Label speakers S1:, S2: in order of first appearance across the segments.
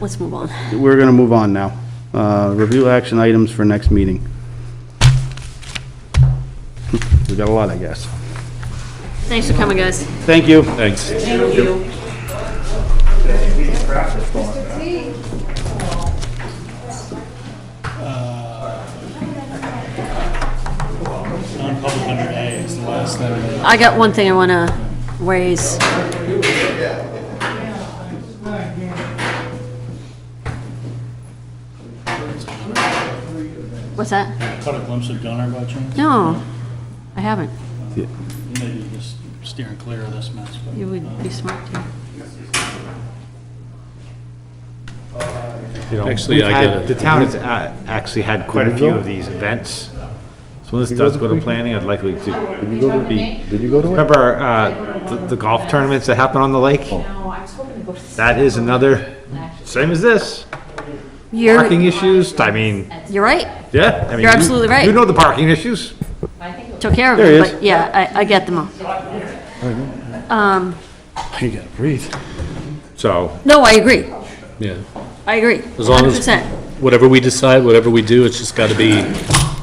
S1: let's move on.
S2: We're going to move on now. Uh, Review action items for next meeting. We got a lot, I guess.
S1: Thanks for coming, guys.
S2: Thank you.
S3: Thanks.
S4: Non-public under A is the last thing.
S1: I got one thing I want to raise. What's that?
S4: Caught a glimpse of Gunner by chance?
S1: No, I haven't.
S4: Maybe just steering clear of this mess. but,
S1: You
S4: uh,
S1: would be smart to.
S3: Actually,
S5: We've
S3: I get
S5: had-
S3: it.
S5: The town has uh, actually had quite a few of these events. So when this does go to planning, I'd likely to be,
S6: Did you go to it?
S5: remember uh, the- the golf tournaments that happen on the lake?
S6: No, I was hoping to go to.
S5: That is another, same as this, parking
S1: You're,
S5: issues, I mean,
S1: you're right.
S5: yeah. I mean,
S1: You're
S5: you-
S1: absolutely right.
S5: You know the parking issues.
S1: Took care of
S2: There he
S1: them,
S2: is.
S1: but yeah, I, I get them all.
S2: You gotta breathe.
S5: So,
S1: No, I agree.
S3: Yeah.
S1: I agree.
S3: As long as,
S1: 100%.
S3: whatever we decide, whatever we do, it's just got to be,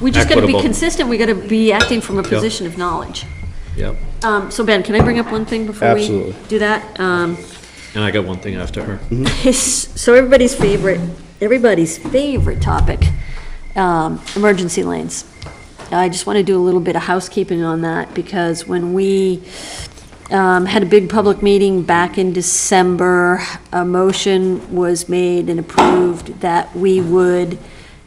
S1: We just got to be
S3: Equitable.
S1: consistent. We got to be acting from a position of knowledge.
S3: yep.
S1: Um, so Ben, can I bring up one thing before we
S2: Absolutely.
S1: do that? Um,
S3: And I got one thing after her.
S1: his, so everybody's favorite, everybody's favorite topic, um, emergency lanes. I just want to do a little bit of housekeeping on that because when we, um, had a big public meeting back in December, a motion was made and approved that we would,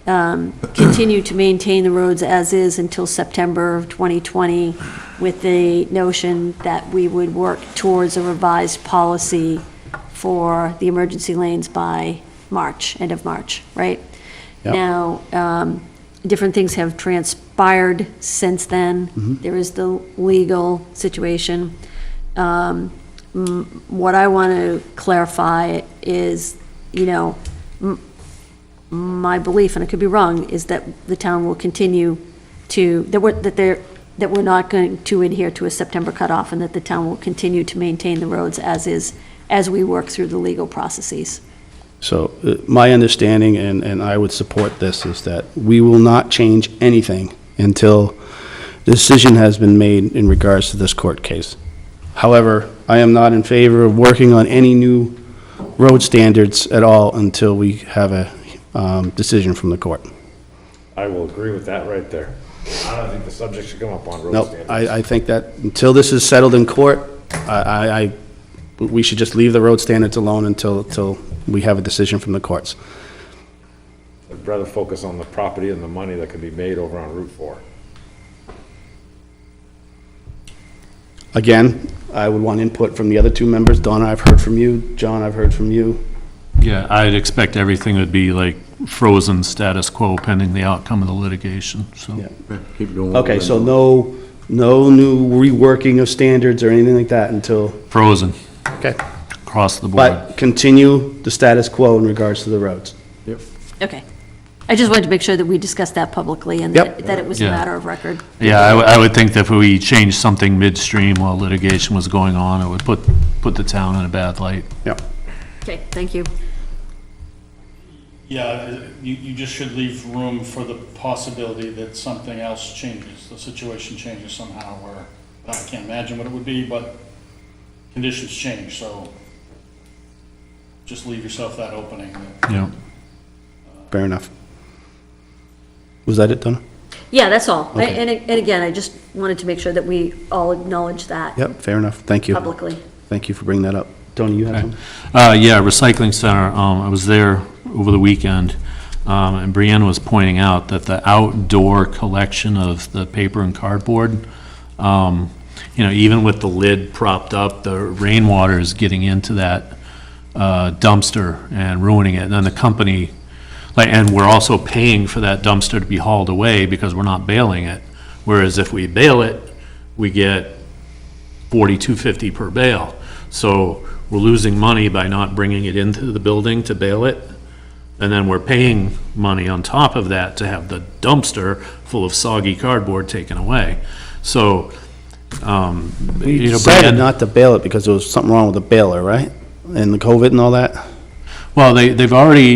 S1: um, continue to maintain the roads as is until September of 2020 with the notion that we would work towards a revised policy for the emergency lanes by March, end of March, right?
S2: Yep.
S1: Now, um, different things have transpired since then. There is the legal situation. Um, m- What I want to clarify is, you know, m- my belief, and I could be wrong, is that the town will continue to, that we're, that they're, that we're not going to adhere to a September cutoff, and that the town will continue to maintain the roads as is, as we work through the legal processes.
S2: So uh, my understanding, and, and I would support this, is that we will not change anything until the decision has been made in regards to this court case. However, I am not in favor of working on any new road standards at all until we have a um, decision from the court.
S5: I will agree with that right there. I don't think the subject should come up on road
S2: Nope,
S5: standards.
S2: I, I think that until this is settled in court, I, I, I- we should just leave the road standards alone until, until we have a decision from the courts.
S7: I'd rather focus on the property and the money that can be made over on Route 4.
S2: Again, I would want input from the other two members. Donna, I've heard from you. John, I've heard from you.
S3: Yeah, I'd expect everything would be like frozen status quo pending the outcome of the litigation, so.
S6: Keep going.
S2: Okay, so no, no new reworking of standards or anything like that until,
S3: Frozen,
S2: okay.
S3: across the board.
S2: But continue the status quo in regards to the roads.
S1: Okay. I just wanted to make sure that we discussed that publicly and
S2: Yep.
S1: that that it was a
S3: Yeah.
S1: matter of record.
S3: Yeah, I, would- I would think that if we changed something midstream while litigation was going on, it would put, put the town in a bad light.
S2: Yeah.
S1: Okay, thank you.
S4: Yeah, you, you just should leave room for the possibility that something else changes, the situation changes somehow where, I can't imagine what it would be, but conditions change, so just leave yourself that opening. that-
S3: Yeah,
S2: Fair enough. Was that it, Donna?
S1: Yeah, that's all. I-
S2: Okay.
S1: And, a- and again, I just wanted to make sure that we all acknowledge that
S2: Yep, fair enough. Thank you.
S1: publicly.
S2: Thank you for bringing that up. Tony, you have
S3: okay.
S2: something?
S3: Uh, yeah, recycling center, um, I was there over the weekend, um, and Brianna was pointing out that the outdoor collection of the paper and cardboard, um, you know, even with the lid propped up, the rainwater is getting into that uh, dumpster and ruining it, and then the company, like, and we're also paying for that dumpster to be hauled away because we're not bailing it, whereas if we bail it, we get forty-two fifty per bale. So we're losing money by not bringing it into the building to bail it, and then we're paying money on top of that to have the dumpster full of soggy cardboard taken away. So, um,
S2: We
S3: you know,
S2: decided
S3: Brian-
S2: not to bail it because there was something wrong with the baler, right? And the COVID and all that?
S3: Well, they, they've already